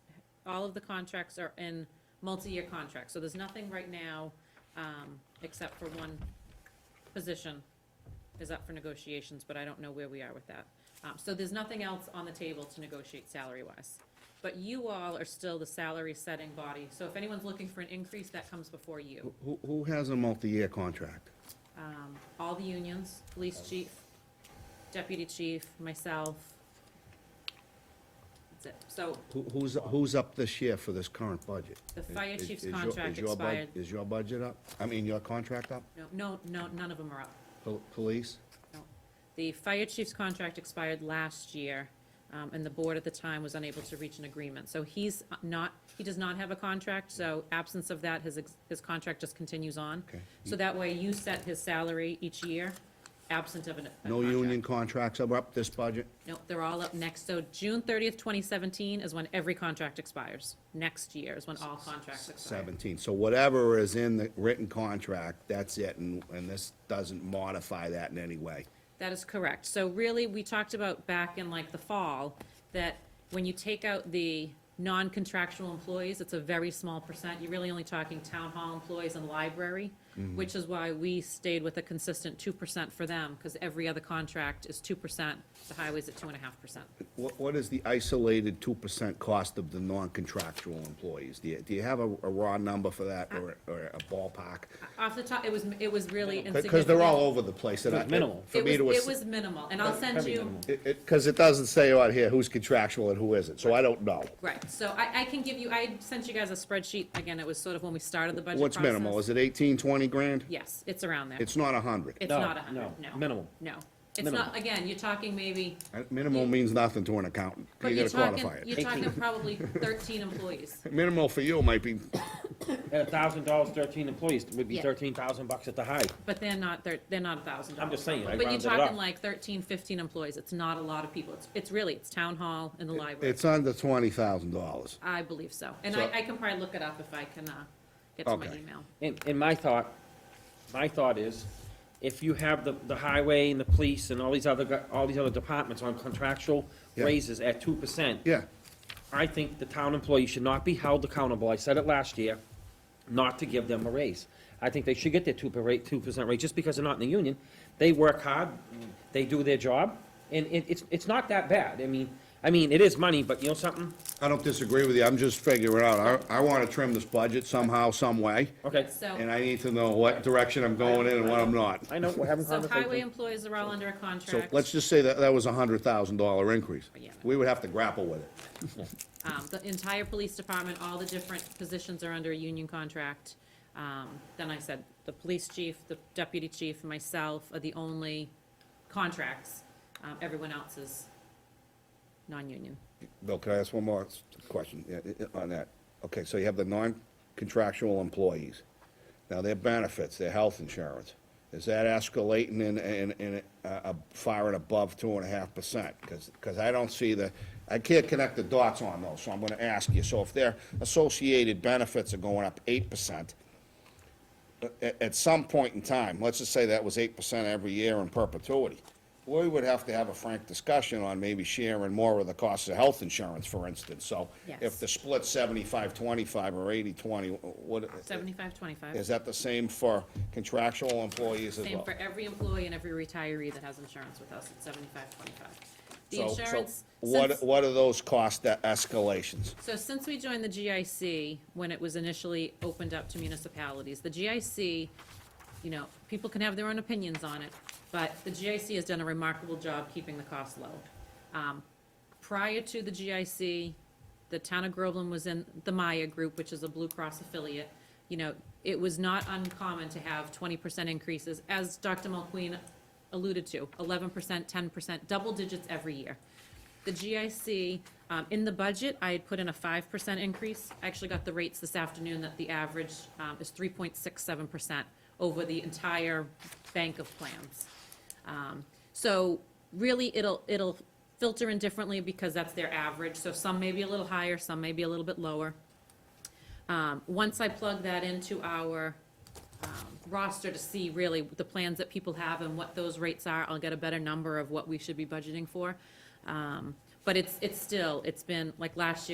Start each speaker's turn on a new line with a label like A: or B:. A: all of the contracts are in multi-year contracts, so there's nothing right now, um, except for one position is up for negotiations, but I don't know where we are with that. Um, so there's nothing else on the table to negotiate salary-wise. But you all are still the salary-setting body, so if anyone's looking for an increase, that comes before you.
B: Who, who has a multi-year contract?
A: Um, all the unions, police chief, deputy chief, myself. That's it. So
B: Who, who's, who's up this year for this current budget?
A: The fire
B: Is-
A: chief's
B: is your-
A: contract
B: is your bud-
A: expired.
B: Is your budget up? I mean, your contract up?
A: No, no, no, none of them are up.
B: Pol- Police?
A: No. The fire chief's contract expired last year, um, and the board at the time was unable to reach an agreement. So he's not, he does not have a contract, so absence of that, his, ex- his contract just continues on.
B: Okay.
A: So that way you set his salary each year, absent of an. a
B: No
A: contract.
B: union contracts are up this budget?
A: Nope, they're all up next. So June thirtieth, twenty seventeen is when every contract expires. Next year is when all contracts expire.
B: Seventeen, so whatever is in the written contract, that's it, and, and this doesn't modify that in any way.
A: That is correct. So really, we talked about back in like the fall, that when you take out the non-contractual employees, it's a very small percent. You're really only talking town hall employees and library,
B: Mm-hmm.
A: which is why we stayed with a consistent two percent for them, because every other contract is two percent, the highway's at two and a half percent.
B: What, what is the isolated two percent cost of the non-contractual employees? Do you, do you have a, a raw number for that, or, or a ballpark?
A: Off the top, it was, it was really insignificant.
B: Because they're all over the place, and I.
C: It was minimal.
B: For me
A: It
B: to.
A: was,
B: ass-
A: it was minimal, and I'll send
C: Very
A: you,
C: minimal.
B: It, it, because it doesn't say out here who's contractual and who isn't, so I don't know.
A: right, so I, I can give you, I sent you guys a spreadsheet, again, it was sort of when we started the budget
B: What's minimal,
A: process.
B: is it eighteen, twenty grand?
A: Yes, it's around there.
B: It's not a hundred.
A: It's
C: No,
A: not a hundred,
C: no,
A: no.
C: minimal.
A: No. It's
C: Minimal.
A: not, again, you're talking maybe,
B: Minimal means nothing to an accountant,
A: but
B: you
A: you're
B: gotta
A: talking,
B: quantify
A: you're
B: it.
A: talking
C: 18.
A: probably thirteen employees.
B: Minimal for you might be,
C: At a thousand dollars, thirteen employees would be
A: Yeah.
C: thirteen thousand bucks at the high.
A: But they're not, they're, they're not a thousand dollars.
C: I'm just saying, I
A: But you're
C: rounded it
A: talking
C: up.
A: like thirteen, fifteen employees. It's not a lot of people. It's, it's really, it's town hall and the library.
B: it's under twenty thousand dollars.
A: I believe so. And I,
B: So-
A: I can probably look it up if I can, uh, get to my
B: Okay.
A: email.
C: And, and my thought, my thought is, if you have the, the highway and the police and all these other, gu- all these other departments on contractual
B: Yeah.
C: raises at two percent.
B: Yeah,
C: I think the town employees should not be held accountable, I said it last year, not to give them a raise. I think they should get their two per rate, two percent rate, just because they're not in the union. They work hard, they do their job, and it, it's, it's not that bad. I mean, I mean, it is money, but you know something?
B: I don't disagree with you, I'm just figuring out, I, I wanna trim this budget somehow, some way,
C: Okay,
B: and
A: So,
B: I need to know what direction I'm going in and what I'm not.
C: I know, we're having
A: so highway
C: conversation.
A: employees are all under a
B: So
A: contract.
B: let's just say that that was a hundred thousand dollar increase.
A: Yeah.
B: We would have to grapple with it.
A: Um, the entire police department, all the different positions are under a union contract. Um, then I said, the police chief, the deputy chief, and myself are the only contracts. Um, everyone else is non-union.
B: Bill, can I ask one more s- question yeah, i- i- on that? Okay, so you have the non-contractual employees. Now, their benefits, their health insurance, is that escalating in, in, in, uh, far and above two and a half percent? Because, I don't see the, I can't connect the dots on those, so I'm gonna ask you. So if their associated benefits are going up eight percent, at, at some point in time, let's just say that was eight percent every year in perpetuity, we would have to have a frank discussion on maybe sharing more of the cost of health insurance, for instance, so
A: Yes.
B: if the split's seventy-five, twenty-five, or eighty, twenty, what?
A: Seventy-five, twenty-five,
B: Is that the same for contractual employees as
A: same
B: well?
A: for every employee and every retiree that has insurance with us, it's seventy-five, twenty-five. The
B: So- so
A: insurance, since-
B: What, what are those cost e- escalations?
A: So since we joined the GIC, when it was initially opened up to municipalities, the GIC, you know, people can have their own opinions on it, but the GIC has done a remarkable job keeping the cost low. Um, Prior to the GIC, the town of Groveland was in the Maya Group, which is a Blue Cross affiliate. You know, it was not uncommon to have twenty percent increases, as Dr. Mulqueen alluded to, eleven percent, ten percent, double digits every year. The GIC, um, in the budget, I had put in a five percent increase. I actually got the rates this afternoon that the average, um, is three point six seven percent over the entire bank of plans. Um, So really, it'll, it'll filter in differently because that's their average. So some may be a little higher, some may be a little bit lower. Um, Once I plug that into our um, roster to see really the plans that people have and what those rates are, I'll get a better number of what we should be budgeting for. Um, But it's, it's still, it's been, like last year.